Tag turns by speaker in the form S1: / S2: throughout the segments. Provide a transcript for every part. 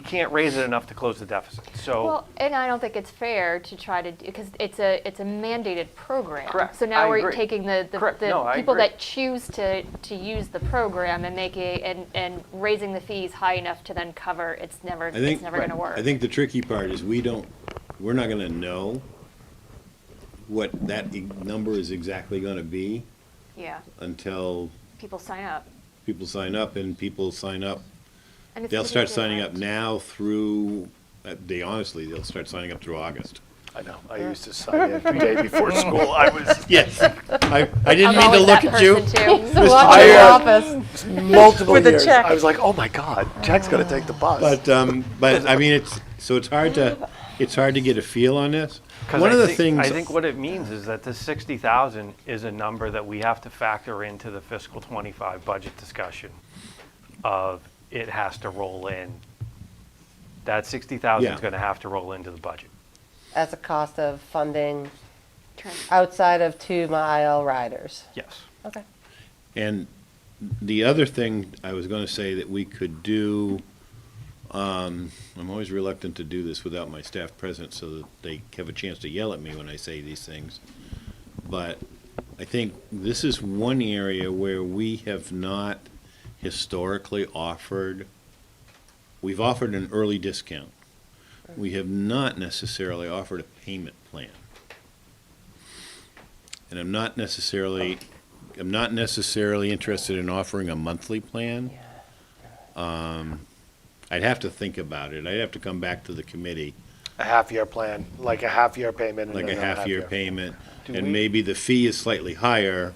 S1: can't raise it enough to close the deficit. So,
S2: Well, and I don't think it's fair to try to, because it's a, it's a mandated program.
S1: Correct.
S2: So now
S1: I
S2: we're
S1: agree.
S2: taking the, the-
S1: Correct. No,
S2: the
S1: I
S2: people
S1: agree.
S2: that choose to, to use the program and make it, and, and raising the fees high enough to then cover, it's never,
S3: I think-
S2: it's never gonna work.
S3: I think the tricky part is we don't, we're not gonna know what that e- number is exactly gonna be
S2: Yeah,
S3: until
S2: people sign up.
S3: people sign up and people sign up.
S2: And it's
S3: They'll
S2: gonna
S3: start
S2: be
S3: signing up
S2: different.
S3: now through, uh, they honestly, they'll start signing up through August.
S4: I know, I used to sign in the day before school, I was
S3: Yes. I, I
S2: I'm
S3: didn't mean to
S2: always that
S3: look at you.
S2: person too.
S5: Walk in the office.
S4: uh, multiple
S5: With a
S4: years.
S5: check.
S4: I was like, oh my God, Jack's gonna take the bus.
S3: But, um, but I mean, it's, so it's hard to, it's hard to get a feel on this.
S1: 'cause
S3: One
S1: I
S3: of the
S1: think-
S3: things.
S1: I think what it means is that this 60,000 is a number that we have to factor into the fiscal 25 budget discussion of it has to roll in. That 60,000
S3: Yeah.
S1: is going to have to roll into the budget.
S5: As a cost of funding
S2: Trans-
S5: outside of two-mile riders.
S1: Yes.
S5: Okay.
S3: And the other thing I was going to say that we could do, um, I'm always reluctant to do this without my staff present so that they have a chance to yell at me when I say these things. But I think this is one area where we have not historically offered, we've offered an early discount. We have not necessarily offered a payment plan. And I'm not necessarily I'm not necessarily interested in offering a monthly plan. Um, I'd have to think about it. I'd have to come back to the committee,
S4: A half-year plan, like a half-year payment. and
S3: like a
S4: another
S3: half-year payment.
S1: Do we-
S3: And maybe the fee is slightly higher,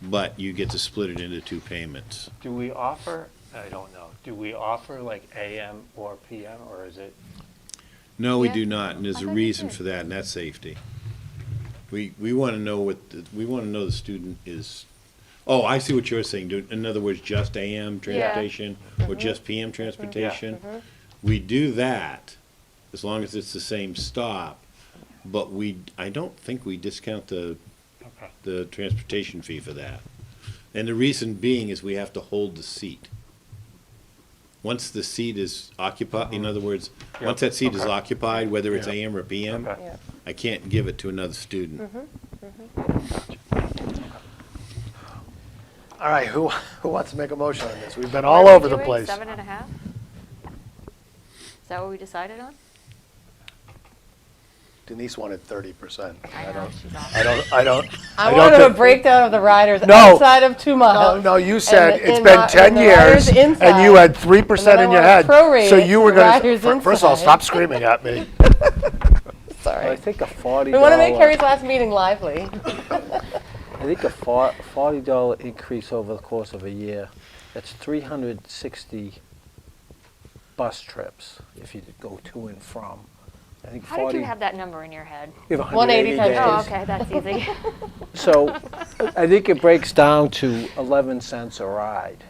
S3: but you get to split it into two payments.
S1: Do we offer, I don't know, do we offer like AM or PM, or is it?
S3: No, we
S2: Yeah.
S3: do not, and there's
S2: I
S3: a
S2: thought you
S3: reason
S2: did.
S3: for that, and that's safety. We, we want to know what, the- we want to know the student is, oh, I see what you're saying, dude. in other words, just AM transportation or just PM transportation. We do that, as long as it's the same stop, but we, I don't think we discount the,
S1: Okay.
S3: the transportation fee for that. And the reason being is we have to hold the seat. Once the seat is occupied, in other words,
S1: Yeah.
S3: once that seat is
S1: Mm-hmm. Okay.
S3: occupied, whether it's
S1: Yeah.
S3: AM or PM,
S1: Okay.
S5: Yeah.
S3: I can't give it to another student.
S5: Mm-hmm.
S4: All right, who, who wants to make a motion on this? We've
S2: What
S4: been
S2: are
S4: all
S2: we
S4: over the
S2: doing,
S4: place.
S2: Seven and a half? Is that what we decided on?
S4: Denise wanted thirty percent.
S2: I know, she's off.
S4: I don't, I don't.
S5: I
S4: don't
S5: wanted a
S4: thi-
S5: breakdown of the riders
S4: No.
S5: outside of two miles.
S4: No, no, you
S5: and
S4: said
S5: the-
S4: it's
S5: and
S4: been
S5: the-
S4: ten
S5: and the
S4: years,
S5: riders
S4: and you
S5: inside.
S4: had three percent
S5: then
S4: in
S5: I
S4: your head.
S5: wanna prorate
S4: So
S5: it
S4: you were
S5: to
S4: gonna,
S5: riders
S4: fir- first of all,
S5: inside.
S4: stop screaming at me.
S5: Sorry.
S6: think a forty.
S5: We want to make Harry's last meeting lively.
S6: I think a fo- forty dollar increase over the course of a year. That's three hundred sixty bus trips if you go to and from. I think
S2: How did
S6: forty.
S2: you have that number in your head?
S6: you have
S5: 180 times
S2: Oh,
S5: Yes.
S2: okay, that's easy.
S6: So I think it breaks down to eleven cents a ride.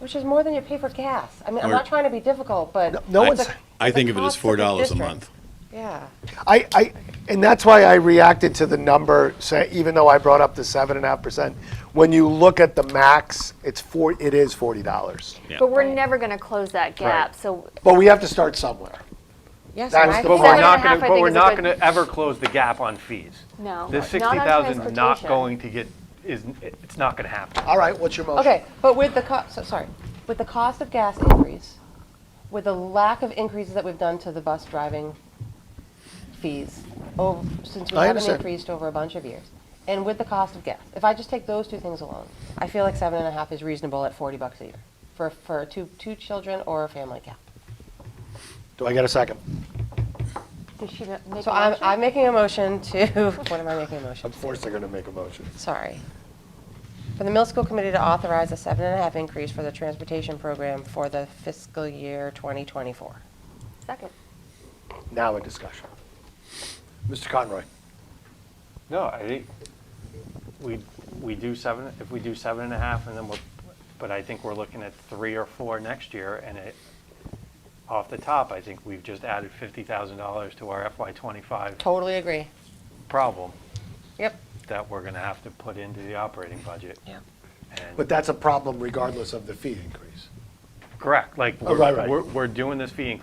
S5: Which is more than you pay for gas. I mean, I'm
S3: Or-
S5: not trying to be difficult, but.
S4: No
S5: the-
S4: one's,
S3: I
S5: the
S3: think of it as
S5: cost
S3: four
S5: the
S3: dollars a
S5: district.
S3: month.
S5: Yeah.
S4: I, I, and that's why I reacted to the number, say, even though I brought up the seven and a half percent. When you look at the max, it's four, it is forty dollars.
S3: Yeah.
S2: But we're never gonna close that gap, so
S4: But we have to start somewhere.
S5: Yes,
S4: That's
S5: and I
S4: the
S5: think
S1: But
S2: Seven
S1: we're
S2: and a
S5: that-
S1: not
S2: half,
S1: going
S2: I
S1: to, but
S2: think,
S1: we're
S2: is a
S1: not
S2: good-
S1: going to ever close the gap on fees.
S2: no.
S1: This
S2: not
S1: 60,000
S2: on
S1: is not
S2: transportation.
S1: going to get, is, it's not going to happen.
S4: All right, what's your motion?
S5: Okay, but with the cost, so, sorry, with the cost of gas increase, with the lack of increases that we've done to the bus driving fees, oh, since we
S4: I
S5: haven't
S4: understand.
S5: increased over a bunch of years, and with the cost of gas, if I just take those two things alone, I feel like seven and a half is reasonable at forty bucks a year for, for two, two children or a family cap.
S4: Do I get a second?
S2: Did she ma- make
S5: So
S2: a
S5: I'm,
S2: motion?
S5: I'm making a motion to, what am I making a motion?
S4: Of course they're gonna make a motion.
S5: sorry. For the Mill School Committee to authorize a seven and a half increase for the transportation program for the fiscal year 2024.
S2: Second.
S4: Now a discussion. Mr. Conroy,
S1: No, I think we, we do seven, if we do seven and a half, and then we're, but I think we're looking at three or four next year, and it, off the top, I think we've just added fifty thousand dollars to our FY twenty-five
S5: Totally agree.
S1: problem
S5: Yep.
S1: that we're gonna have to put into the operating budget.
S5: Yeah.
S1: And-
S4: but that's a problem regardless of the fee increase.
S1: Correct, like,
S4: Oh, right,
S1: we're,
S4: right.
S1: we're- we're doing this fee increase